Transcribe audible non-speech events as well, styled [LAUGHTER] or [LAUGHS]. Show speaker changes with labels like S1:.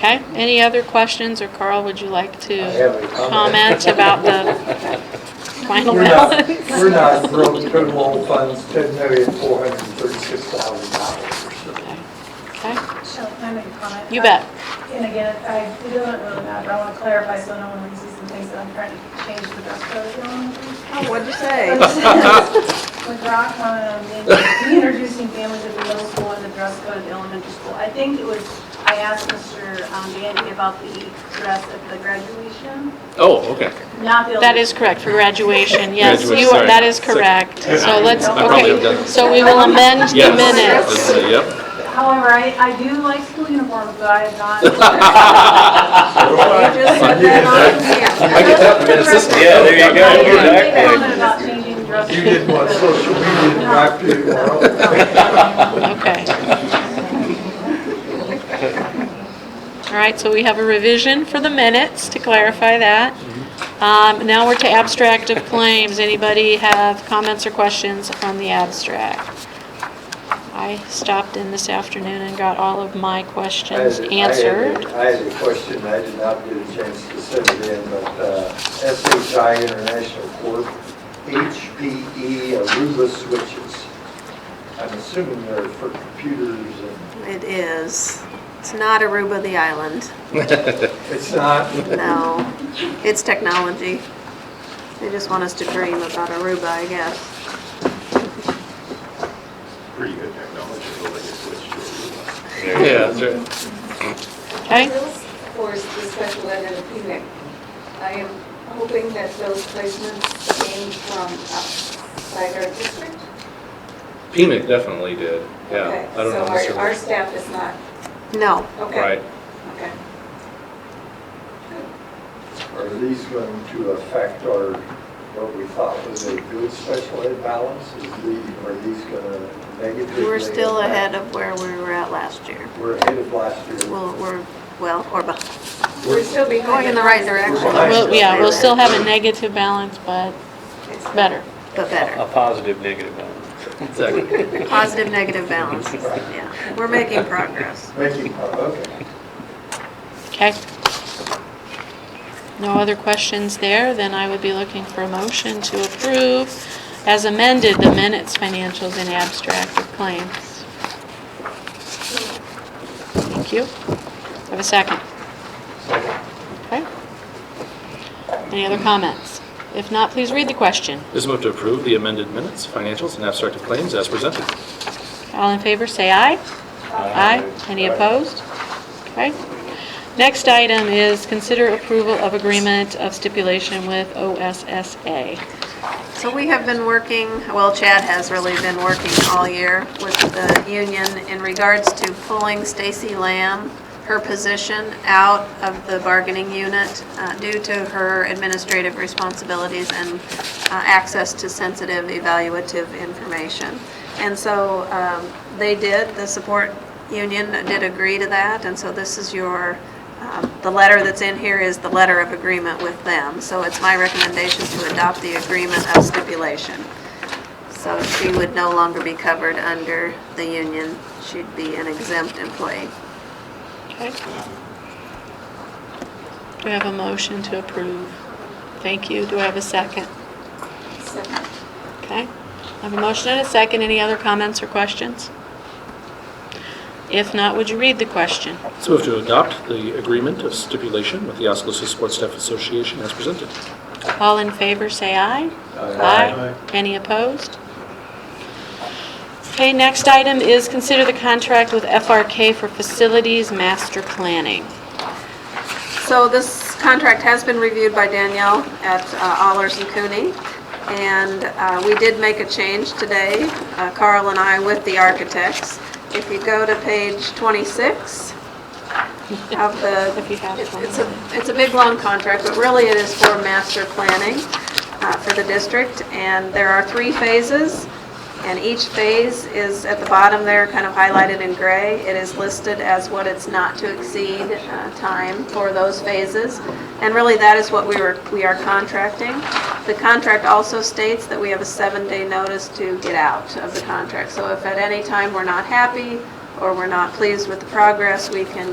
S1: Okay, any other questions, or Carl, would you like
S2: I have
S1: to
S2: a
S1: comment
S2: comment.
S1: about the
S2: [LAUGHS]
S1: final
S2: We're not,
S1: balance?
S2: we're not broke total loan funds, ten million, four hundred and thirty-six thousand dollars.
S1: Okay,
S3: Shall I make a comment?
S1: you bet.
S3: And again, I, it doesn't really matter, I want to clarify so no one reads these and thinks that I'm trying to change the dress code. Um,
S4: Oh, what'd you say?
S3: [LAUGHS] When Brock commented on the- reintroducing families at the middle school and the dress code at the elementary school, I think it was, I asked Mr. um, Gandy about the dress at the graduation,
S5: Oh, okay.
S3: not the.
S1: That is correct, for graduation, yes,
S5: Graduation,
S1: you are,
S5: sorry.
S1: that is correct.
S5: Yeah.
S1: So let's,
S3: I
S5: probably have
S1: okay,
S5: done-
S1: so we will amend the
S5: Yes.
S1: minutes.
S5: That's it,
S6: [LAUGHS]
S5: Yep.
S3: Um, However, I, I do like school uniforms, but I have not.
S1: [LAUGHS]
S4: You just said that on
S5: I get that from Minnesota.
S7: Yeah, there you go.
S3: They
S7: Exactly.
S3: commented about changing dress
S2: You didn't
S3: code.
S2: want social media to drive you,
S4: [LAUGHS]
S1: Okay. All right, so we have a revision for the minutes to clarify that. Um, Now we're to abstract of claims. Anybody have comments or questions on the abstract? I stopped in this afternoon and got all of my
S2: I had-
S1: questions
S2: I had a-
S1: answered.
S2: I had a question, I did not get a chance to send it in, but uh, SHI International Corp., HPE Aruba switches. I'm assuming they're for computers and,
S4: here. It is. It's not Aruba the island.
S2: it's not,
S4: No. It's technology. They just want us to dream about Aruba, I guess.
S7: Pretty good technology, but they just switched to
S5: Yeah, that's right.
S1: Okay?
S6: Those force the special ed and PMIC. I am hoping that those placements came from outside our district.
S5: PMIC definitely did. Yeah.
S6: Okay,
S5: I don't know.
S6: So
S5: Mr.
S6: our, our staff is not,
S4: No.
S6: okay.
S5: Right.
S6: Okay.
S2: are these going to affect our, what we thought was a good special ed balance? Is the, are these going to negatively?
S4: We're still
S2: affect-
S4: ahead of where we were at last year.
S2: We're ahead of last year.
S4: We'll, we're, well, or behind.
S6: We're still behind.
S4: Going in the right direction.
S2: We're behind.
S1: We'll- Yeah, we'll still have a negative balance, but
S6: It's
S1: better.
S4: But better.
S8: A positive, negative balance.
S5: Exactly.
S4: Positive, negative balance. Yeah. We're making progress.
S2: Making, okay.
S1: Okay? No other questions there, then I would be looking for a motion to approve as amended the minutes, financials, and abstract of claims. Thank you. Have a second. Okay. Any other comments? If not, please read the question.
S5: Just move to approve the amended minutes, financials, and abstract of claims as presented.
S1: All in favor, say aye. Aye. Any opposed? Okay. Next item is consider approval of agreement of stipulation with OSSA.
S4: So we have been working, well, Chad has really been working all year with the union in regards to pulling Stacy Lamb, her position, out of the bargaining unit uh, due to her administrative responsibilities and uh, access to sensitive evaluative information. And so um, they did, the support union did agree to that, and so this is your um, The letter that's in here is the letter of agreement with them, so it's my recommendation to adopt the agreement of stipulation. So she would no longer be covered under the union, she'd be an exempt employee.
S1: Okay. Do I have a motion to approve? Thank you. Do I have a second?
S6: Second.
S1: Okay. I have a motion and a second. Any other comments or questions? If not, would you read the question?
S5: Let's move to adopt the agreement of stipulation with the Oskaloosa Sports Staff Association as presented.
S1: All in favor, say aye. Aye. Any opposed? Okay, next item is consider the contract with FRK for facilities master planning.
S4: So this contract has been reviewed by Danielle at uh, Allers and Cooney, and uh, we did make a change today, uh, Carl and I, with the architects. If you go to page 26 of the...
S1: If you have
S4: it's-
S1: one.
S4: It's a, it's a big, long contract, but really it is for master planning uh, for the district, and there are three phases, and each phase is at the bottom there, kind of highlighted in gray. It is listed as what it's not to exceed uh, time for those phases, and really that is what we were, we are contracting. The contract also states that we have a seven-day notice to get out of the contract, so if at any time we're not happy or we're not pleased with the progress, we can